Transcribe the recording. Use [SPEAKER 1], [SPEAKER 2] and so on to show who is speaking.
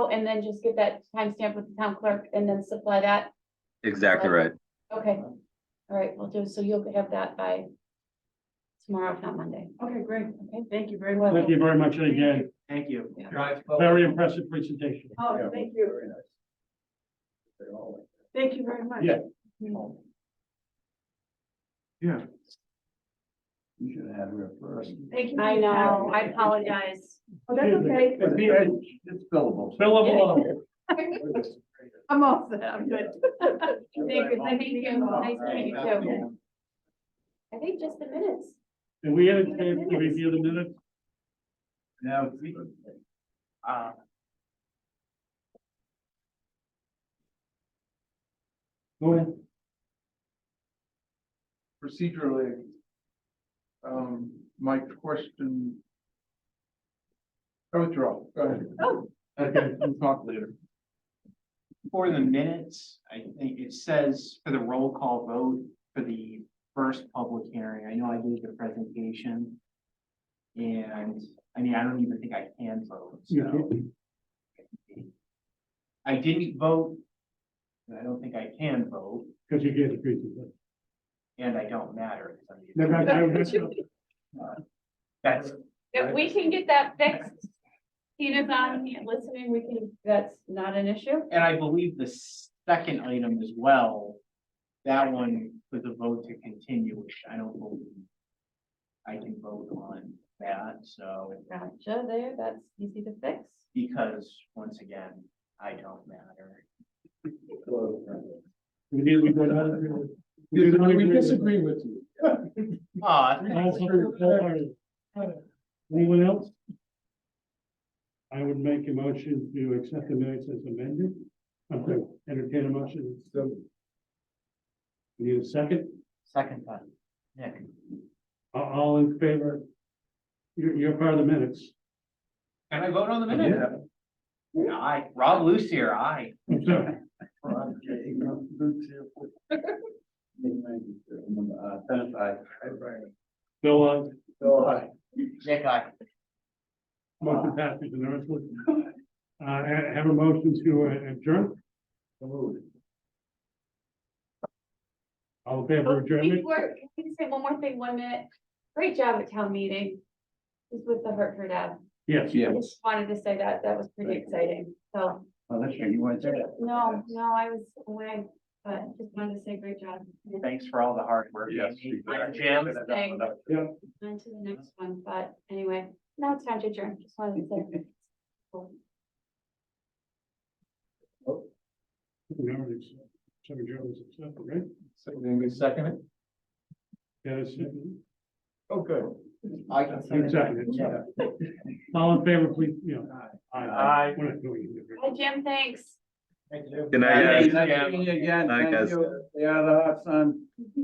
[SPEAKER 1] Oh, and then just get that timestamp with the town clerk and then supply that.
[SPEAKER 2] Exactly right.
[SPEAKER 1] Okay, all right, we'll do, so you'll have that by tomorrow, if not Monday.
[SPEAKER 3] Okay, great.
[SPEAKER 1] Okay.
[SPEAKER 3] Thank you very much.
[SPEAKER 4] Thank you very much, and again,
[SPEAKER 5] Thank you.
[SPEAKER 1] Yeah.
[SPEAKER 5] Drive.
[SPEAKER 4] very impressive presentation.
[SPEAKER 3] Oh, thank you. Thank you very much.
[SPEAKER 4] Yeah.
[SPEAKER 2] You should have her first.
[SPEAKER 3] Thank you.
[SPEAKER 1] I know, I apologize.
[SPEAKER 3] Oh, that's okay.
[SPEAKER 4] It'd be a-
[SPEAKER 2] It's billable.
[SPEAKER 4] Bill of law.
[SPEAKER 3] I'm off that. I'm good.
[SPEAKER 1] Thank you, thank you, nice to meet you too. I think just the minutes.
[SPEAKER 4] And we had a chance to review the minutes,
[SPEAKER 2] Now, we-
[SPEAKER 5] Uh,
[SPEAKER 4] go ahead,
[SPEAKER 6] procedurally. Um, my question. I withdraw, go ahead.
[SPEAKER 3] Oh.
[SPEAKER 6] Okay, we'll talk later.
[SPEAKER 5] for the minutes, I think it says for the roll call vote for the first public hearing, I know I gave the presentation. And, I mean, I don't even think I can vote, so. I didn't vote. and I don't think I can vote,
[SPEAKER 4] because you gave the presentation.
[SPEAKER 5] and I don't matter.
[SPEAKER 4] Never mind, never mind.
[SPEAKER 5] That's,
[SPEAKER 1] If we can get that fixed, Tina's on, hand listening, we can, that's not an issue.
[SPEAKER 5] and I believe the second item as well, that one was a vote to continue, which I don't believe I can vote on that, so,
[SPEAKER 1] Gotcha, there, that's easy to fix.
[SPEAKER 5] because, once again, I don't matter.
[SPEAKER 4] We did, we got out of here.
[SPEAKER 6] We we disagree with you.
[SPEAKER 5] Aw,
[SPEAKER 4] All for- all for- Anyone else? I would make a motion to accept the minutes as amended. I'm sorry, entertain a motion. Need a second?
[SPEAKER 5] second time, Nick.
[SPEAKER 4] A- All in favor? You're, you're part of the minutes.
[SPEAKER 5] Can I vote on the minute?
[SPEAKER 2] Yeah.
[SPEAKER 5] Aye, Rob Lucier, aye.
[SPEAKER 4] I'm sorry.
[SPEAKER 2] Uh, Dennis, I.
[SPEAKER 4] Bill, uh, on
[SPEAKER 2] Bill, I.
[SPEAKER 5] Nick, aye.
[SPEAKER 4] motion passes and the rest of it. Uh, ha- have a motion to uh, adjourn, all in favor of adjournment?
[SPEAKER 1] Before, Oh, can you say one more thing, one minute? Great job at town meeting. Just with the Hartford ad.
[SPEAKER 4] Yes.
[SPEAKER 1] I
[SPEAKER 2] Yeah.
[SPEAKER 1] just wanted to say that, that was pretty
[SPEAKER 2] Thank you.
[SPEAKER 1] exciting, so,
[SPEAKER 2] Oh, that's right, you want to say that?
[SPEAKER 1] no, no, I was away, but just wanted to say great job.
[SPEAKER 5] Thanks for all the hard work.
[SPEAKER 6] Yes.
[SPEAKER 5] Jim.
[SPEAKER 1] Thanks. On to the next one, but anyway, now it's time to adjourn, just wanted to say.
[SPEAKER 4] We already accept- so adjournment's accepted, right?
[SPEAKER 6] Second it?
[SPEAKER 4] Yes,
[SPEAKER 6] Oh, good.
[SPEAKER 5] I can say that.
[SPEAKER 4] exactly.
[SPEAKER 5] Yeah.
[SPEAKER 4] All in favor, please, you know.
[SPEAKER 5] Aye.
[SPEAKER 4] We're not doing it.
[SPEAKER 1] Hi, Jim, thanks.
[SPEAKER 5] Thank you.
[SPEAKER 2] Good night, guys.
[SPEAKER 5] Thanks, Jim.
[SPEAKER 2] Night, guys.
[SPEAKER 6] Yeah, the hot sun.